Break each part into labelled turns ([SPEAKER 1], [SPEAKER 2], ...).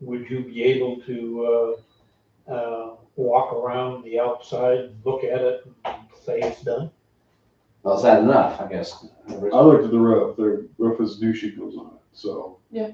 [SPEAKER 1] would you be able to, uh, uh, walk around the outside, and look at it and say it's done?
[SPEAKER 2] Well, is that enough, I guess?
[SPEAKER 3] I looked at the roof, the roof has new shingles on it, so.
[SPEAKER 4] Yeah.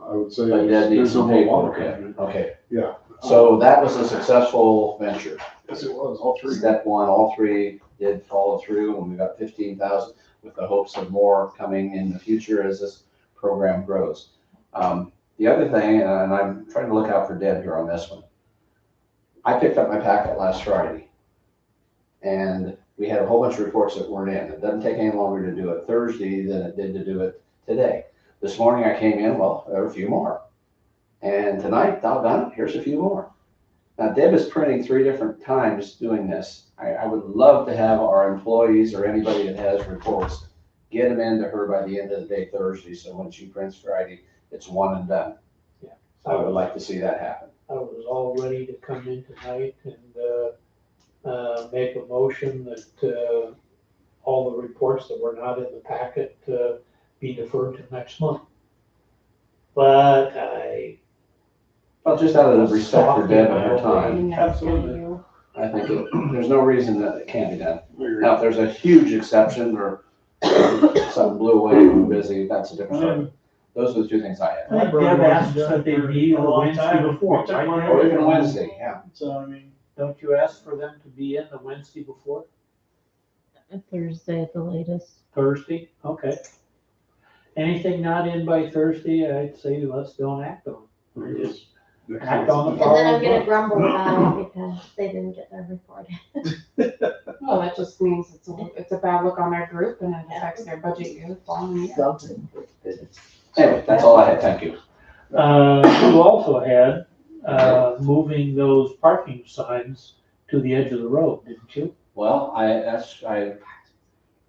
[SPEAKER 3] I would say
[SPEAKER 2] But
[SPEAKER 3] there's
[SPEAKER 2] that needs
[SPEAKER 3] there's no
[SPEAKER 2] some
[SPEAKER 3] more water
[SPEAKER 2] paperwork,
[SPEAKER 3] coming in.
[SPEAKER 2] yeah, okay.
[SPEAKER 3] Yeah.
[SPEAKER 2] So that was a successful venture.
[SPEAKER 3] Yes, it was, all three.
[SPEAKER 2] Step one, all three did follow through, and we got fifteen thousand with the hopes of more coming in the future as this program grows. Um, the other thing, and I'm trying to look out for Deb here on this one. I picked up my packet last Friday, and we had a whole bunch of reports that weren't in. It doesn't take any longer to do it Thursday than it did to do it today. This morning I came in, well, there were a few more. And tonight, I'll done, here's a few more. Now Deb is printing three different times doing this. I, I would love to have our employees or anybody that has reports, get them into her by the end of the day Thursday, so when she prints Friday, it's one and done. I would like to see that happen.
[SPEAKER 1] I was all ready to come in tonight and, uh, uh, make a motion that, uh, all the reports that were not in the packet, uh, be deferred to next month. But I,
[SPEAKER 2] Well, just out of respect for Deb and her time,
[SPEAKER 4] And that's kinda
[SPEAKER 3] Absolutely.
[SPEAKER 4] you.
[SPEAKER 2] I think it- there's no reason that it can't be done. Now,
[SPEAKER 3] Agreed.
[SPEAKER 2] if there's a huge exception or something blew away, we were busy, that's a different story. Those are the two things I had.
[SPEAKER 5] I think Deb asked us that they be on Wednesday before, right?
[SPEAKER 2] Or even Wednesday, yeah.
[SPEAKER 5] So, I mean,
[SPEAKER 1] don't you ask for them to be in the Wednesday before?
[SPEAKER 4] Thursday at the latest.
[SPEAKER 1] Thursday, okay. Anything not in by Thursday, I'd say let's don't act on. it. Just
[SPEAKER 3] Next
[SPEAKER 1] act
[SPEAKER 3] one.
[SPEAKER 1] on the
[SPEAKER 6] And then
[SPEAKER 1] problem.
[SPEAKER 6] I'm gonna grumble about it because they didn't get their report.
[SPEAKER 4] Well, that just means it's a, it's a bad look on their group and it affects their budget year the following year.
[SPEAKER 7] something.
[SPEAKER 2] Anyway, that's all I had, thank you.
[SPEAKER 1] Uh, you also had, uh, moving those parking signs to the edge of the road, didn't you?
[SPEAKER 2] Well, I, that's, I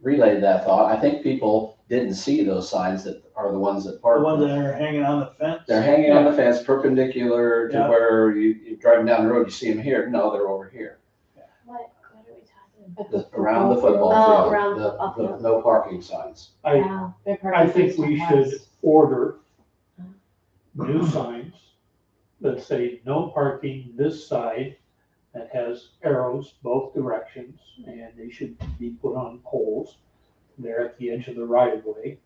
[SPEAKER 2] relayed that thought. I think people didn't see those signs that are the ones that
[SPEAKER 5] the
[SPEAKER 2] park.
[SPEAKER 5] ones that are hanging on the fence.
[SPEAKER 2] They're hanging on the fence perpendicular to
[SPEAKER 5] Yeah.
[SPEAKER 2] where you, you driving down the road, you see them here. No, they're over here.
[SPEAKER 6] What, what are we talking
[SPEAKER 4] But
[SPEAKER 2] The- Around the football
[SPEAKER 6] Oh,
[SPEAKER 2] field,
[SPEAKER 6] around the
[SPEAKER 2] the,
[SPEAKER 6] football
[SPEAKER 2] the no parking signs.
[SPEAKER 1] I-
[SPEAKER 6] about?
[SPEAKER 4] They park
[SPEAKER 1] I
[SPEAKER 4] in
[SPEAKER 1] think we
[SPEAKER 4] Houston
[SPEAKER 1] should
[SPEAKER 4] West.
[SPEAKER 1] order new
[SPEAKER 5] Uh-huh.
[SPEAKER 1] signs that say no parking this side that has arrows both directions and they should be put on poles. They're at the edge of the right of way.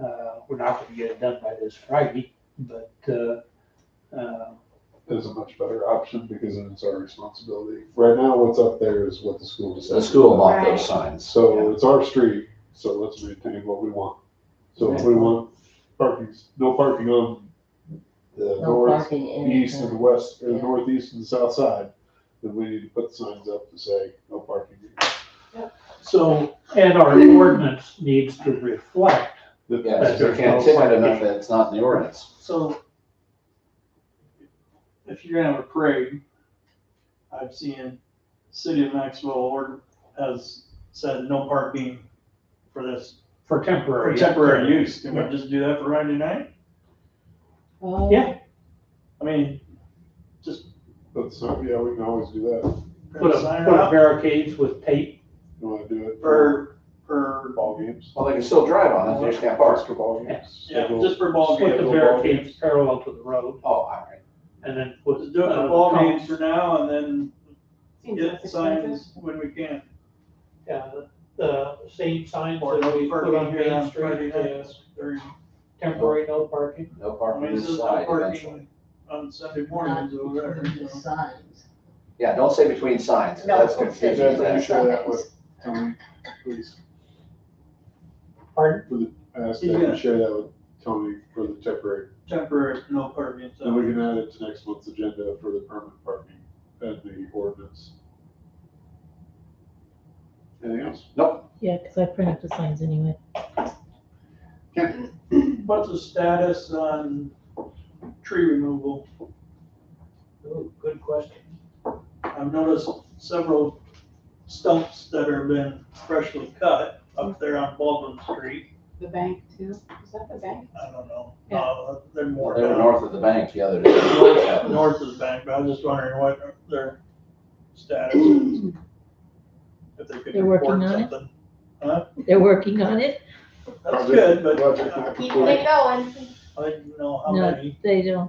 [SPEAKER 1] Uh, we're not gonna get it done by this Friday, but, uh, uh,
[SPEAKER 3] That's a much better option because then it's our responsibility. Right now, what's up there is what the school
[SPEAKER 2] The
[SPEAKER 3] decides.
[SPEAKER 2] school bought
[SPEAKER 6] Right.
[SPEAKER 2] those signs.
[SPEAKER 3] So it's our street, so let's maintain what we want. So if we want parking, no parking on the
[SPEAKER 7] No
[SPEAKER 3] north,
[SPEAKER 7] parking in.
[SPEAKER 3] east and west, or the
[SPEAKER 7] Yeah.
[SPEAKER 3] northeast and south side, then we need to put signs up to say no parking.
[SPEAKER 1] so, and our ordinance needs to reflect
[SPEAKER 3] That-
[SPEAKER 2] Yeah, because
[SPEAKER 1] That's
[SPEAKER 2] they can't
[SPEAKER 1] good.
[SPEAKER 2] tip it enough that it's not in the ordinance.
[SPEAKER 5] So if you're gonna have a parade, I've seen City of Maxwell or has said no parking for this,
[SPEAKER 1] for
[SPEAKER 5] for
[SPEAKER 1] temporary.
[SPEAKER 5] temporary use. Can we just do that for Friday night?
[SPEAKER 4] Oh,
[SPEAKER 1] Yeah.
[SPEAKER 5] I mean,
[SPEAKER 3] But so, yeah, we can always do that.
[SPEAKER 1] Put
[SPEAKER 5] put
[SPEAKER 1] a,
[SPEAKER 5] a sign
[SPEAKER 1] put a
[SPEAKER 5] up
[SPEAKER 1] barricades with tape.
[SPEAKER 3] You wanna do it for
[SPEAKER 5] for, for,
[SPEAKER 3] ball games?
[SPEAKER 2] Well, they can still drive on it, they Oh, just can't park.
[SPEAKER 3] For ball games.
[SPEAKER 5] yeah,
[SPEAKER 3] Schedule-
[SPEAKER 5] just for ball
[SPEAKER 1] Put the
[SPEAKER 5] games.
[SPEAKER 1] barricades parallel to the road
[SPEAKER 2] Oh, all right.
[SPEAKER 1] and then put.
[SPEAKER 5] Just do it
[SPEAKER 1] uh,
[SPEAKER 5] for ball
[SPEAKER 1] cones.
[SPEAKER 5] games for now and then
[SPEAKER 4] seems like
[SPEAKER 5] get
[SPEAKER 4] it's
[SPEAKER 5] signs when we can.
[SPEAKER 1] Yeah, the same signs
[SPEAKER 5] Or
[SPEAKER 1] that we
[SPEAKER 5] no
[SPEAKER 1] put
[SPEAKER 5] parking
[SPEAKER 1] on
[SPEAKER 5] here
[SPEAKER 1] Main
[SPEAKER 5] on
[SPEAKER 1] Street,
[SPEAKER 5] Friday
[SPEAKER 1] uh,
[SPEAKER 5] nights during
[SPEAKER 1] temporary no parking.
[SPEAKER 2] No
[SPEAKER 5] I
[SPEAKER 2] parking
[SPEAKER 5] mean,
[SPEAKER 2] this
[SPEAKER 5] this is
[SPEAKER 2] side
[SPEAKER 5] not
[SPEAKER 2] eventually.
[SPEAKER 5] parking on Sunday
[SPEAKER 7] Not
[SPEAKER 5] mornings or whatever,
[SPEAKER 7] between the
[SPEAKER 5] so.
[SPEAKER 7] signs.
[SPEAKER 2] Yeah, don't say between signs,
[SPEAKER 7] No,
[SPEAKER 2] that's
[SPEAKER 7] don't say
[SPEAKER 2] confusing.
[SPEAKER 3] Yeah,
[SPEAKER 7] between
[SPEAKER 3] I'm
[SPEAKER 2] That's-
[SPEAKER 3] sure that would- Tony, please.
[SPEAKER 1] Pardon?
[SPEAKER 3] For the, I asked if you share that with Tony for the temporary,
[SPEAKER 5] temporary no parking. so-
[SPEAKER 3] then we can add it to next month's agenda for the permanent parking and the ordinance. Anything else?
[SPEAKER 8] Yeah, because I print up the signs anyway.
[SPEAKER 5] What's the status on tree removal?
[SPEAKER 1] Ooh, Good question.
[SPEAKER 5] I've noticed several stumps that have been freshly cut up there on Baldwin Street.
[SPEAKER 4] The bank too, is that the bank?
[SPEAKER 5] I don't know,
[SPEAKER 4] Yeah.
[SPEAKER 5] uh, they're
[SPEAKER 2] Well,
[SPEAKER 5] more
[SPEAKER 2] They were
[SPEAKER 5] down
[SPEAKER 2] north of the bank the other day.
[SPEAKER 5] north of the bank, but I was just wondering what their status is. If they could
[SPEAKER 8] They're working
[SPEAKER 5] report
[SPEAKER 8] on it?
[SPEAKER 5] something.
[SPEAKER 8] They're working on it.
[SPEAKER 5] That's
[SPEAKER 3] Project-
[SPEAKER 5] good, but uh,
[SPEAKER 3] project not
[SPEAKER 5] I
[SPEAKER 6] Keep
[SPEAKER 3] completed.
[SPEAKER 6] it going.
[SPEAKER 5] didn't know how
[SPEAKER 8] No.
[SPEAKER 5] many.
[SPEAKER 8] They don't